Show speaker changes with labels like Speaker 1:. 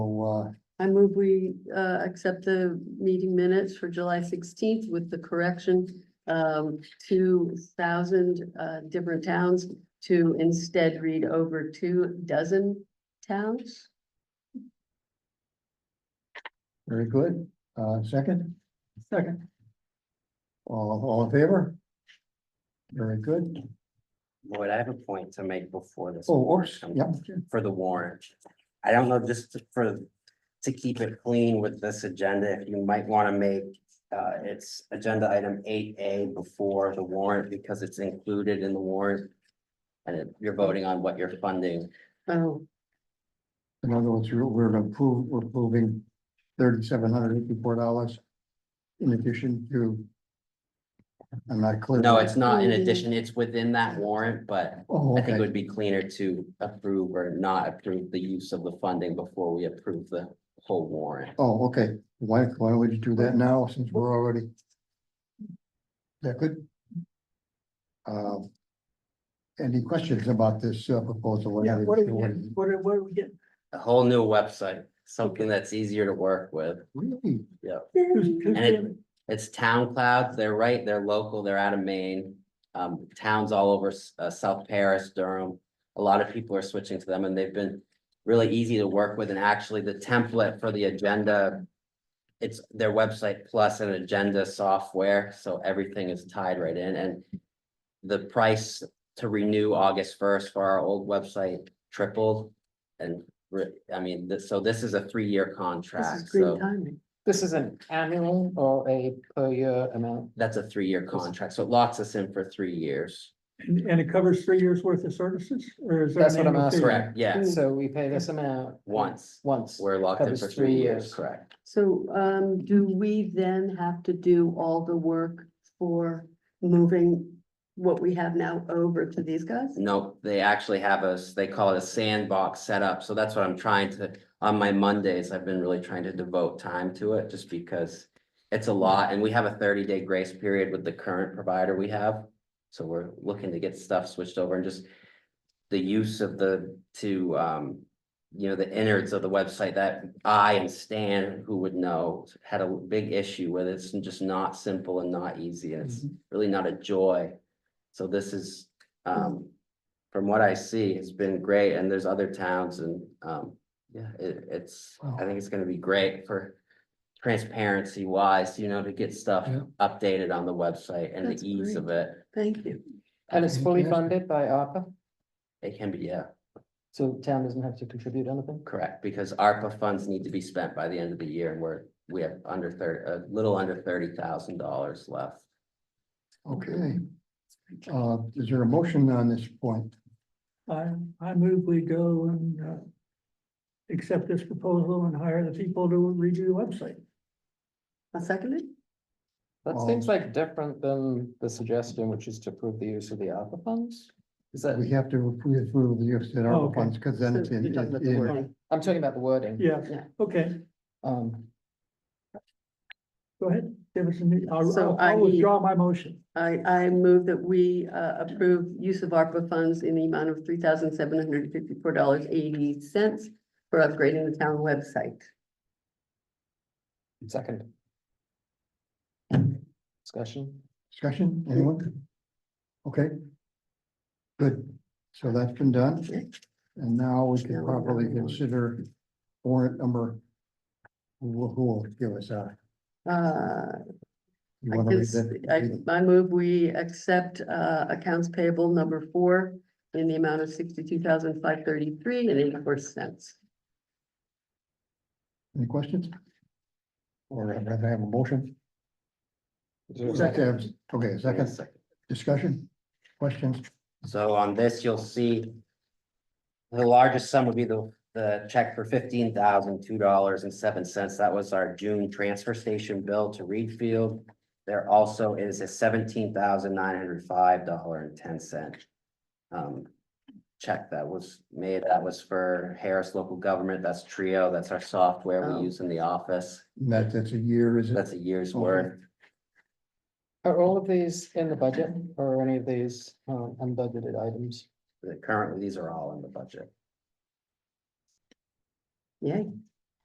Speaker 1: So, uh,
Speaker 2: I move we uh accept the meeting minutes for July sixteenth with the correction. Um, two thousand uh different towns to instead read over two dozen towns.
Speaker 1: very good. Uh, second? Second. All, all in favor? Very good.
Speaker 3: Lloyd, I have a point to make before this.
Speaker 1: Oh, oops,
Speaker 3: comes
Speaker 1: yeah,
Speaker 3: For the warrant. I don't know, just to- for, to keep it clean with this agenda, if you might want to make uh, it's agenda item eight A before the warrant because it's included in the warrant. And it- you're voting on what you're funding.
Speaker 2: Oh,
Speaker 1: in other words, you're- we're approving, we're approving thirty-seven hundred eighty-four dollars in addition to. I'm not clear.
Speaker 3: No, it's not in
Speaker 2: Mhm.
Speaker 3: addition, it's within that warrant, but
Speaker 1: Oh,
Speaker 3: I think
Speaker 1: okay.
Speaker 3: it would be cleaner to approve or not approve the use of the funding before we approve the whole warrant.
Speaker 1: Oh, okay. Why, why would you do that now since we're already? That good. Um, Any questions about this uh, proposal?
Speaker 4: Yeah, what are we getting? What are, what are we getting?
Speaker 3: A whole new website, something that's easier to work with.
Speaker 1: Really?
Speaker 4: Who's- who's
Speaker 3: And it-
Speaker 4: doing it?
Speaker 3: It's town clouds, they're right, they're local, they're out of Maine. Um, towns all over, S- uh, South Paris, Durham. A lot of people are switching to them and they've been really easy to work with and actually the template for the agenda. It's their website plus an agenda software, so everything is tied right in and. The price to renew August first for our old website tripled. And, re- I mean, th- so this is a three-year
Speaker 2: this is
Speaker 3: contract, so.
Speaker 2: green timing.
Speaker 5: This is an annual or a per year amount?
Speaker 3: That's a three-year contract, so it locks us in for three years.
Speaker 4: And and it covers three years worth of services or is? there
Speaker 5: That's
Speaker 4: an
Speaker 5: what I'm
Speaker 4: annual fee?
Speaker 5: asking.
Speaker 3: Correct, yeah,
Speaker 5: So we pay this amount?
Speaker 3: once,
Speaker 5: Once.
Speaker 3: we're locked in
Speaker 5: Covers
Speaker 3: for
Speaker 5: three
Speaker 3: three years,
Speaker 5: years.
Speaker 3: correct.
Speaker 2: So um, do we then have to do all the work for moving what we have now over to these guys?
Speaker 3: No, they actually have a, s- they call it a sandbox setup, so that's what I'm trying to, on my Mondays, I've been really trying to devote time to it, just because it's a lot, and we have a thirty-day grace period with the current provider we have. So we're looking to get stuff switched over and just the use of the, to, um, you know, the innards of the website that I and Stan, who would know, had a big issue with. It's just not simple and not easy. and It's really not a joy. So this is, um, from what I see, it's been great and there's other towns and, um, yeah, it, it's,
Speaker 1: Wow.
Speaker 3: I think it's gonna be great for transparency wise, you know, to get stuff
Speaker 1: Yeah.
Speaker 3: updated on the website and
Speaker 2: That's
Speaker 3: the ease of it.
Speaker 2: Thank you.
Speaker 5: And it's fully
Speaker 1: Fantastic.
Speaker 5: funded by ARPA,
Speaker 3: It can be, yeah,
Speaker 5: so town doesn't have to contribute anything?
Speaker 3: correct, because ARPA funds need to be spent by the end of the year and we're, we have under thirty, a little under thirty thousand dollars left.
Speaker 1: Okay. Uh, is there a motion on this point?
Speaker 4: I, I move we go and, uh, accept this proposal and hire the people to redo the website.
Speaker 2: I second it.
Speaker 5: That
Speaker 1: Um,
Speaker 5: seems like different than the suggestion, which is to approve the use of the ARPA funds? Is that,
Speaker 1: We have to approve the use of
Speaker 4: Oh,
Speaker 1: our
Speaker 4: okay.
Speaker 1: funds because then it's in.
Speaker 5: You're talking about the
Speaker 1: in-
Speaker 5: word. I'm talking about the wording.
Speaker 4: Yeah,
Speaker 2: Yeah.
Speaker 4: okay,
Speaker 5: Um,
Speaker 4: go ahead. Give us a minute. I'll,
Speaker 2: So
Speaker 4: I'll-
Speaker 2: I
Speaker 4: I'll
Speaker 2: need-
Speaker 4: withdraw my motion.
Speaker 2: I, I move that we uh, approve use of ARPA funds in the amount of three thousand seven hundred and fifty-four dollars eighty cents for upgrading the town website.
Speaker 5: second. Discussion?
Speaker 1: Discussion, anyone? Okay. Good, so that's been done, and now we can properly consider warrant number. Who will, who will give us a?
Speaker 2: Uh,
Speaker 1: You
Speaker 2: I
Speaker 1: want to
Speaker 2: can
Speaker 1: read
Speaker 2: s-
Speaker 1: that?
Speaker 2: I, I move we accept, uh, accounts payable number four in the amount of sixty-two thousand five thirty-three and eighty-four cents.
Speaker 1: Any questions? Or I'd rather have a motion?
Speaker 5: Is there a
Speaker 1: Second, okay,
Speaker 3: Give me a
Speaker 1: second discussion, questions,
Speaker 3: So on this, you'll see. The largest sum would be the, the check for fifteen thousand, two dollars and seven cents. That was our June transfer station bill to Reed Field. There also is a seventeen thousand, nine hundred five dollar and ten cent. Um, check that was made, that was for Harris Local Government, that's Trio, that's our software
Speaker 2: Oh.
Speaker 3: we use in the office.
Speaker 1: And that, that's a year, is it?
Speaker 3: That's a year's
Speaker 1: Okay.
Speaker 3: worth.
Speaker 5: Are all of these in the budget or are any of these um, unbudgeted items?
Speaker 3: Currently, these are all in the budget.
Speaker 2: Yay.